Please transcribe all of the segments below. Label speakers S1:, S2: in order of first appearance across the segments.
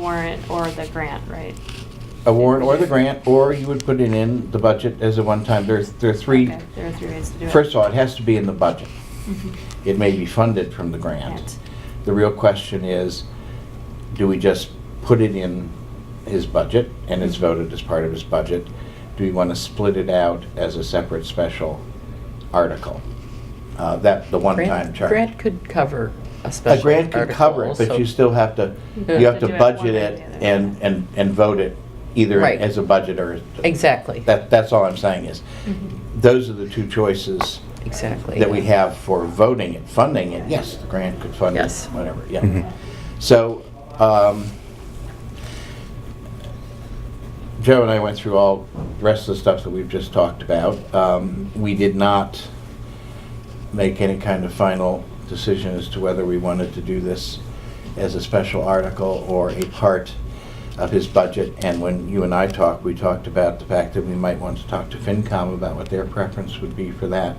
S1: warrant or the grant, right?
S2: A warrant or the grant, or you would put it in the budget as a one-time, there's, there are three,
S1: Okay, There are three ways to do it.
S2: first of all, it has to be in the budget.
S1: Mhm.
S2: It may be funded from the grant.
S1: Grant.
S2: The real question is, do we just put it in his budget and it's voted as part of his budget? Do we want to split it out as a separate special article? Uh, That, the one-time
S3: Grant,
S2: charge.
S3: grant could cover a
S2: A
S3: special
S2: grant could cover it,
S3: article,
S2: but you
S3: so-
S2: still have to,
S3: Yeah.
S2: you have to
S1: To do it
S2: budget
S1: one
S2: it
S1: way or the other.
S2: and, and, and vote it either
S3: Right.
S2: as a budget or.
S3: Exactly,
S2: That, that's all I'm saying is,
S1: Mhm.
S2: those are the two choices
S3: exactly.
S2: that we have for voting it, funding it. Yes, the grant could fund it,
S3: Yes.
S2: whatever, yeah.
S4: Mhm.
S2: So, um, Joe and I went through all the rest of the stuff that we've just talked about. Um, We did not make any kind of final decision as to whether we wanted to do this as a special article or a part of his budget. And when you and I talked, we talked about the fact that we might want to talk to FinCom about what their preference would be for that.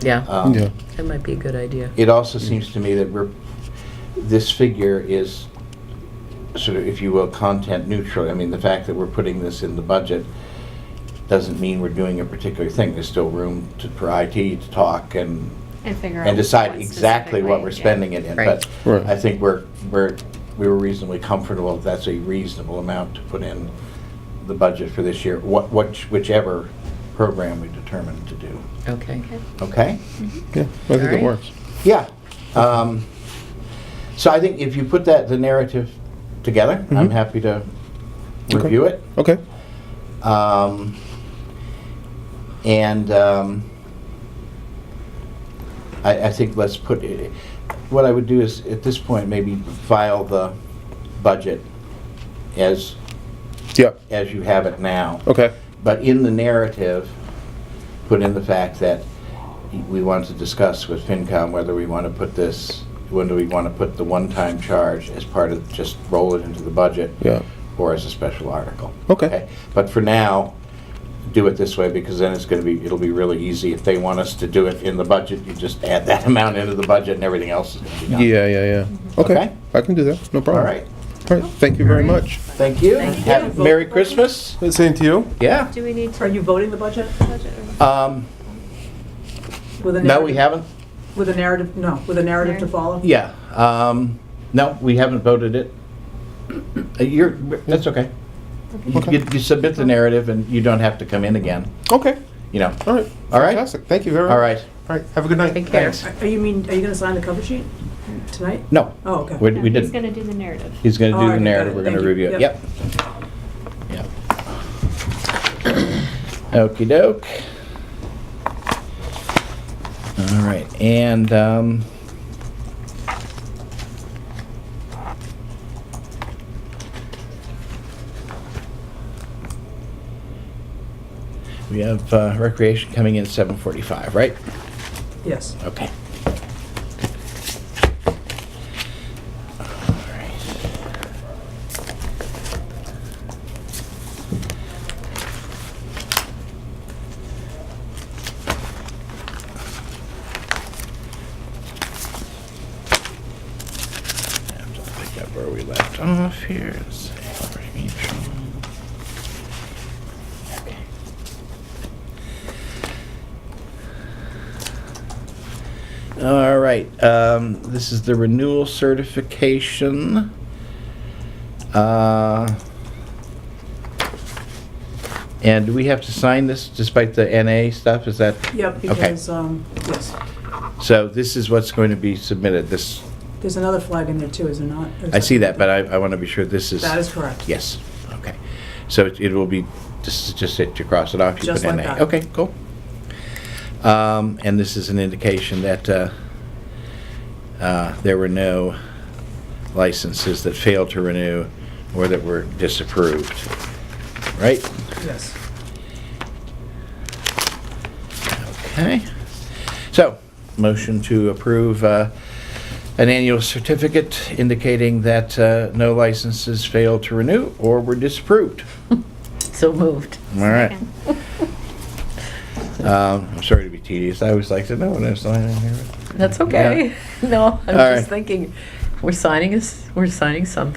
S3: Yeah,
S2: Um,
S4: Yeah.
S3: that might be a good idea.
S2: It also seems to me that we're, this figure is sort of, if you will, content neutral. I mean, the fact that we're putting this in the budget doesn't mean we're doing a particular thing. There's still room to, for IT to talk and,
S1: And figure out.
S2: and decide
S1: what
S2: exactly what
S1: specifically,
S2: we're
S1: yeah.
S2: spending it in.
S3: Right.
S2: But
S4: Right.
S2: I think we're, we're, we were reasonably comfortable that that's a reasonable amount to put in the budget for this year, what, which- whichever program we determine to do.
S3: Okay,
S1: Okay. Mm-hmm.
S2: Okay?
S4: Yeah, I think
S3: Alright.
S4: it works.
S2: Yeah. Um, so I think if you put that the narrative together, I'm
S4: Mhm.
S2: happy to
S4: Okay.
S2: review it.
S4: Okay.
S2: Um, and um, I, I think let's put it, what I would do is at this point maybe file the budget as
S4: Yeah.
S2: as you have it now.
S4: Okay.
S2: But in the narrative, put in the fact that we want to discuss with FinCom whether we want to put this, when do we want to put the one-time charge as part of, just roll it into the budget?
S4: Yeah.
S2: Or as a special article?
S4: Okay.
S2: But for now, do it this way, because then it's going to be, it'll be really easy. If they want us to do it in the budget, you just add that amount into the budget and everything else is going to be
S4: Yeah,
S2: done.
S4: yeah, yeah. Okay.
S2: Mm-hmm. Okay.
S4: I can do that. No
S2: All
S4: problem.
S2: right,
S4: All right. Thank you very much.
S2: thank you.
S1: Thank you.
S2: Have- Merry Christmas.
S4: Same to you.
S2: Yeah.
S1: Do we need
S5: Are
S1: to?
S5: you voting the budget?
S1: budget or-
S2: Um,
S5: With a
S2: No, we
S5: narrative-
S2: haven't.
S5: With a narrative, no, with a narrative to
S1: Narrative.
S5: follow?
S2: Yeah, um, no, we haven't voted it. Uh, You're, that's okay. You-
S4: Okay.
S2: You you submit the narrative and you don't have to come in again,
S4: Okay.
S2: you know.
S4: All right.
S2: All right.
S4: Fantastic. Thank you very much.
S2: All right,
S4: All right. Have a good night.
S3: Take care.
S4: Thanks.
S5: Are- Are you mean, are you gonna sign the cover sheet tonight?
S2: no,
S5: Oh, okay.
S2: we
S1: No,
S2: we
S1: He's
S2: didn't.
S1: gonna do the narrative.
S2: He's gonna
S5: Oh,
S2: do the
S5: okay, got
S2: narrative,
S5: it.
S2: we're gonna
S5: Thank you.
S2: review it,
S5: Yep.
S2: yep. Yep. Okey doke. All right, and, um, we have uh, recreation coming in at 7:45, right?
S5: Yes.
S2: Okay. Have to pick up where we left off here. and see where we from. Okay. All right, um, this is the renewal certification. Uh, And do we have to sign this despite the NA stuff, is that?
S5: Yep, because, um, yes,
S2: So this is what's going to be submitted, this,
S5: there's another flag in there too, is there not? Or is
S2: I see that, but I, I want to be sure this is.
S5: That is correct.
S2: Yes, okay. So it it will be, just, just that you cross it off, you put
S5: Just like
S2: NA.
S5: that.
S2: Okay, cool. Um, and this is an indication that, uh, uh, there were no licenses that failed to renew or that were disapproved, right?
S5: Yes.
S2: Okay. So, motion to approve, uh, an annual certificate indicating that, uh, no licenses failed to renew or were disapproved.
S3: So moved.
S2: All right.
S1: Second.
S2: Um, I'm sorry to be tedious. I always like to know when I'm signing here.
S3: That's okay. No, I'm
S2: All right.
S3: just thinking, we're signing us, we're signing something